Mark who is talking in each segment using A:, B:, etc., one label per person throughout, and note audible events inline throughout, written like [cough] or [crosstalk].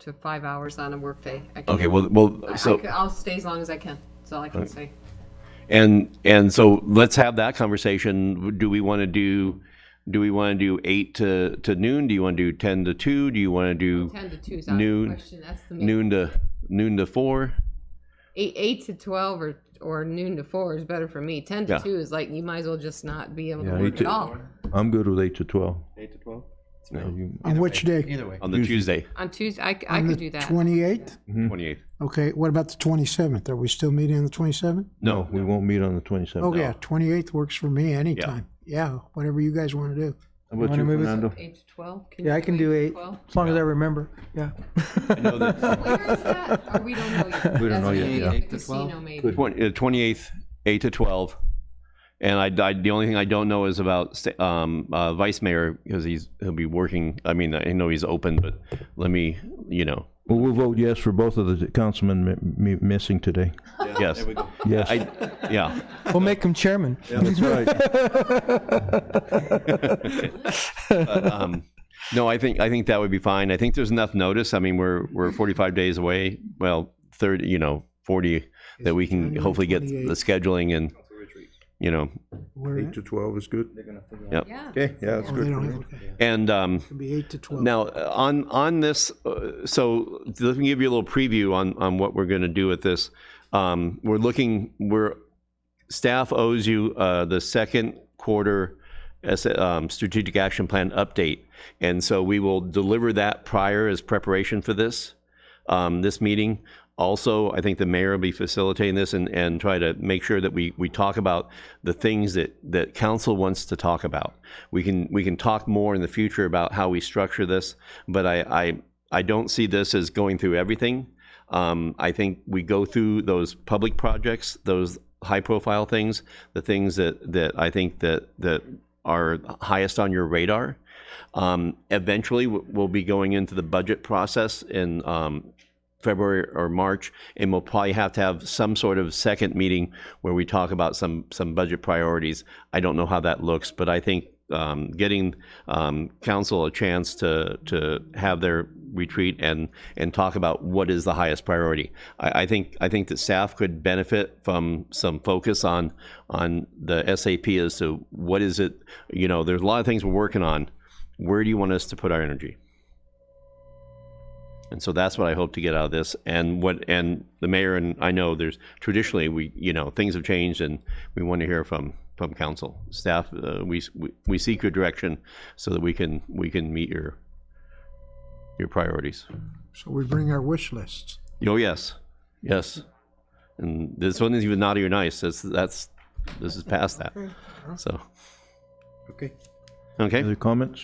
A: to five hours on a workday. I can-
B: Okay, well, well,
A: I-
B: so,
A: I, will stay as long as I can. That's all I can say.
B: and, and so let's have that conversation. Do we want to do, do we want to do eight to, to noon? Do you want to do 10 to 2? Do you want to do
A: Ten to two is out of the
B: Noon-
A: question. That's the main.
B: noon to, noon to 4?
A: Eight, eight to twelve or or noon to four is better for me. Ten to
B: Yeah.
A: two is like you might as well just not be able to
C: Yeah,
A: work
C: eight
A: at
C: to-
A: all
C: I'm good with eight to twelve.
D: Eight to twelve?
C: You-
E: On which day?
D: Either way.
B: On the Tuesday,
A: on Tuesday. I, c- I could do that.
E: Twenty-eighth?
B: 28th.
E: Okay, what about the twenty-seventh? Are we still meeting on the twenty-seventh?
B: No,
C: We won't meet on the twenty-seventh.
E: Oh, yeah, twenty-eighth works for me anytime. Yeah, whatever you guys want to do.
C: How about
F: Wanna
C: you,
F: move it?
C: Fernando?
A: Eight to twelve.
F: Yeah, I can do
A: to
F: eight,
A: 12?
F: as long as I remember, yeah.
B: no, the
A: Where is that? Or we don't know yet.
C: We don't
A: That's
C: know yet,
A: maybe
C: yeah.
A: at
D: Eight to
A: The casino
D: 12?
A: maybe.
B: twen- uh, 28th, 8 to 12. And I, I, the only thing I don't know is about sta- um, uh, Vice Mayor, because he's, he'll be working, I mean, I know he's open, but let me, you know,
C: Well, we'll vote yes for both of the councilmen mi- mi- missing today.
B: yes.
C: Yes.
B: I, yeah.
F: We'll make him chairman.
C: That's right.
B: um, no, I think I think that would be fine. I think there's enough notice. I mean, we're we're 45 days away. Well, 30, you know, 40 that we can
E: January
B: hopefully get the
E: 28th.
B: scheduling and you know,
E: Where,
C: Eight to twelve is good.
A: Yeah.
C: Okay, yeah, that's
E: oh, they don't have, okay.
B: and um,
E: It'll be eight to twelve.
B: now uh, on on this. Uh, so let me give you a little preview on on what we're going to do with this. Um, we're looking. We're staff owes you uh, the second quarter S- um, strategic action plan update, and so we will deliver that prior as preparation for this um, this meeting. Also, I think the mayor will be facilitating this and, and try to make sure that we, we talk about the things that, that council wants to talk about. We can we can talk more in the future about how we structure this, but I I, I don't see this as going through everything. Um, I think we go through those public projects, those high profile things, the things that, that I think that, that are highest on your radar. Um, eventually, w- we'll be going into the budget process in um, February or March, and we'll probably have to have some sort of second meeting where we talk about some some budget priorities. I don't know how that looks, but I think um, getting um, council a chance to to have their retreat and and talk about what is the highest priority. I, I think I think that staff could benefit from some focus on on the SAP as to what is it. You know, there's a lot of things we're working on. Where do you want us to put our energy? And so that's what I hope to get out of this. And what and the mayor and I know there's traditionally we you know things have changed and we want to hear from from council staff. Uh, we, we we seek your direction so that we can we can meet your your priorities.
E: So we bring our wish lists.
B: Oh yes, yes. And this one is even naughty or nice. That's that's this is past that. So
D: Okay.
B: okay,
C: Other comments?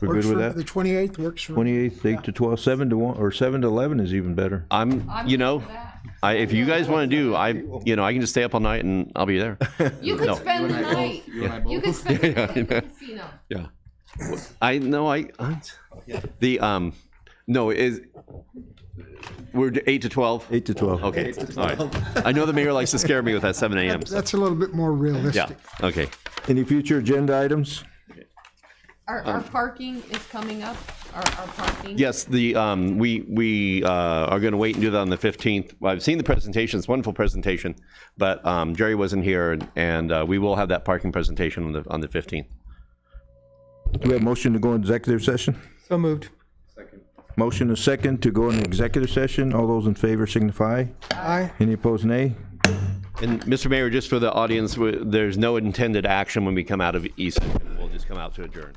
C: We're
E: Works
C: good with
E: for- The
C: that?
E: twenty-eighth works for,
C: Twenty-eighth, eight to twelve, seven to one, or seven to eleven is even better.
B: I'm you know. I, if you guys want to do, I, you know, I can just stay up all night and I'll be there. [laughs]
A: You could
B: No.
A: spend the night.
D: You and I
A: You
D: both.
A: could spend the
B: [laughs] Yeah,
A: night at
B: yeah.
A: the casino.
B: Yeah. I no, I the um no is we're d- eight to twelve.
C: Eight to twelve.
B: Okay, all right. I know the mayor likes to scare me with that
C: [laughs]
B: seven a.m. So.
E: that's a little bit more
B: Yeah.
E: realistic.
B: Okay.
C: Any future agenda items?
A: Our, our parking is coming up. Our, our parking.
B: Yes, the um we we uh, are going to wait and do that on the fifteenth. I've seen the presentation; it's a wonderful presentation. But um, Jerry wasn't here, and, and uh, we will have that parking presentation on the on the fifteenth.
C: Do we have motion to go in executive session?
F: So moved.
C: Motion a second to go in executive session. All those in favor signify.
F: Aye.
C: Any opposed, nay?
B: And Mr. Mayor, just for the audience, we- there's no intended action when we come out of E session. We'll just come out to adjourn.